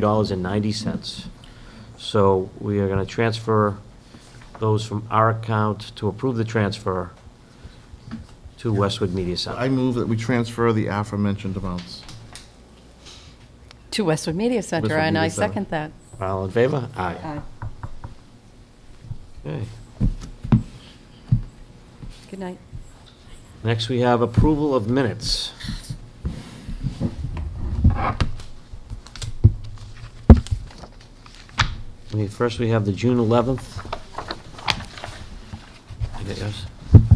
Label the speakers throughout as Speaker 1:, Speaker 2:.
Speaker 1: $733.90. So we are going to transfer those from our account to approve the transfer to Westwood Media
Speaker 2: I
Speaker 1: Center.
Speaker 2: move that we transfer the aforementioned amounts.
Speaker 3: To Westwood Media Center,
Speaker 2: Westwood
Speaker 3: and
Speaker 2: Media
Speaker 3: I
Speaker 2: Center.
Speaker 3: second that.
Speaker 1: All in favor? Aye. Okay.
Speaker 3: Good night.
Speaker 1: Next, we have approval of minutes. We- First, we have the June 11th. You got yours?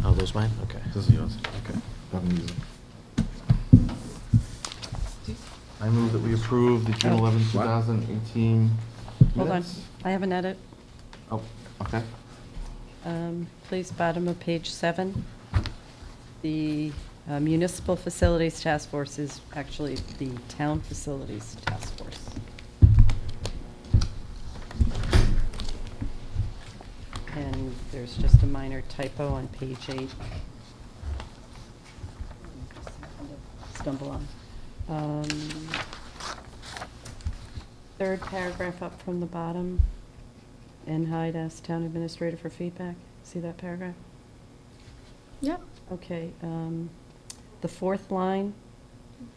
Speaker 1: Oh, those mine? Okay.
Speaker 2: This is yours, okay. Haven't used it. I move that we approve the June
Speaker 3: Oh.
Speaker 2: 11, 2018
Speaker 3: Hold on,
Speaker 2: minutes.
Speaker 3: I have an edit.
Speaker 2: Oh, okay.
Speaker 3: Um, Please, bottom of page seven. The uh, Municipal Facilities Task Force is actually the Town Facilities Task Force. And there's just a minor typo on page eight. Stumble on. Um, Third paragraph up from the bottom. And Hyde asked town administrator for feedback. See that paragraph?
Speaker 4: Yep.
Speaker 3: Okay, um, the fourth line,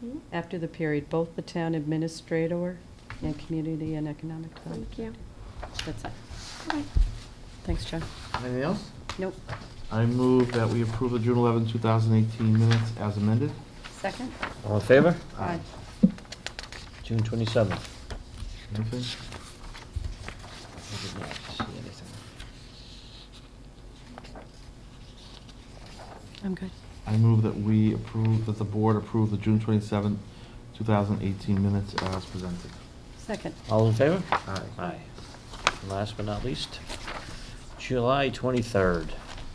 Speaker 4: Mhm.
Speaker 3: after the period, both the town administrator and community and economic development.
Speaker 4: Thank you.
Speaker 3: That's it.
Speaker 4: Okay.
Speaker 3: Thanks, John.
Speaker 2: Anything else?
Speaker 3: Nope.
Speaker 2: I move that we approve the June 11, 2018 minutes as amended.
Speaker 3: Second?
Speaker 1: All in favor?
Speaker 2: Aye.
Speaker 1: June 27th.
Speaker 2: Anything?
Speaker 1: I did not see anything.
Speaker 3: I'm good.
Speaker 2: I move that we approve, that the board approve the June 27, 2018 minutes as presented.
Speaker 3: Second.
Speaker 1: All in favor?
Speaker 2: Aye.
Speaker 1: Aye. And Last but not least, July 23rd.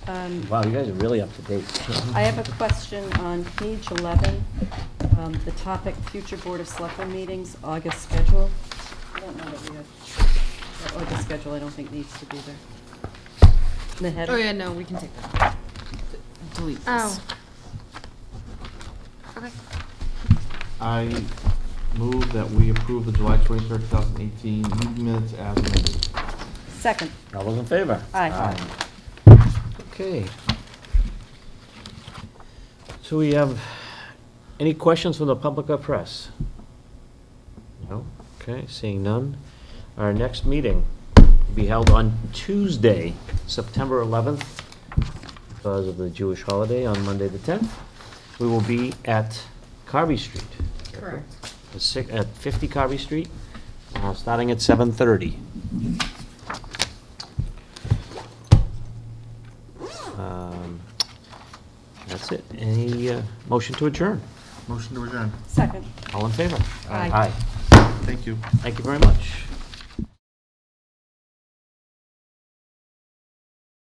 Speaker 3: Um,
Speaker 1: Wow, you guys are really up to date.
Speaker 3: I have a question on page 11, um, the topic, future Board of Selectmen meetings, August schedule. I don't know that we have, that August schedule, I don't think needs to be there. The header.
Speaker 4: Oh, yeah, no, we can take that.
Speaker 3: Delete this.
Speaker 4: Oh. Okay.
Speaker 2: I move that we approve the July 23, 2018 meeting minutes as amended.
Speaker 3: Second.
Speaker 1: All those in favor?
Speaker 3: Aye.
Speaker 1: Okay. So we have, any questions from the public or press? No? Okay, seeing none. Our next meeting will be held on Tuesday, September 11th, because of the Jewish holiday on Monday, the 10th. We will be at Carvey Street.
Speaker 4: Correct.
Speaker 1: At six- At 50 Carvey Street, uh, starting at 7:30. Um, That's it. Any uh, motion to adjourn?
Speaker 2: Motion to adjourn.
Speaker 3: Second.
Speaker 1: All in favor?
Speaker 3: Aye.
Speaker 1: Aye.
Speaker 2: Thank you.
Speaker 1: Thank you very much.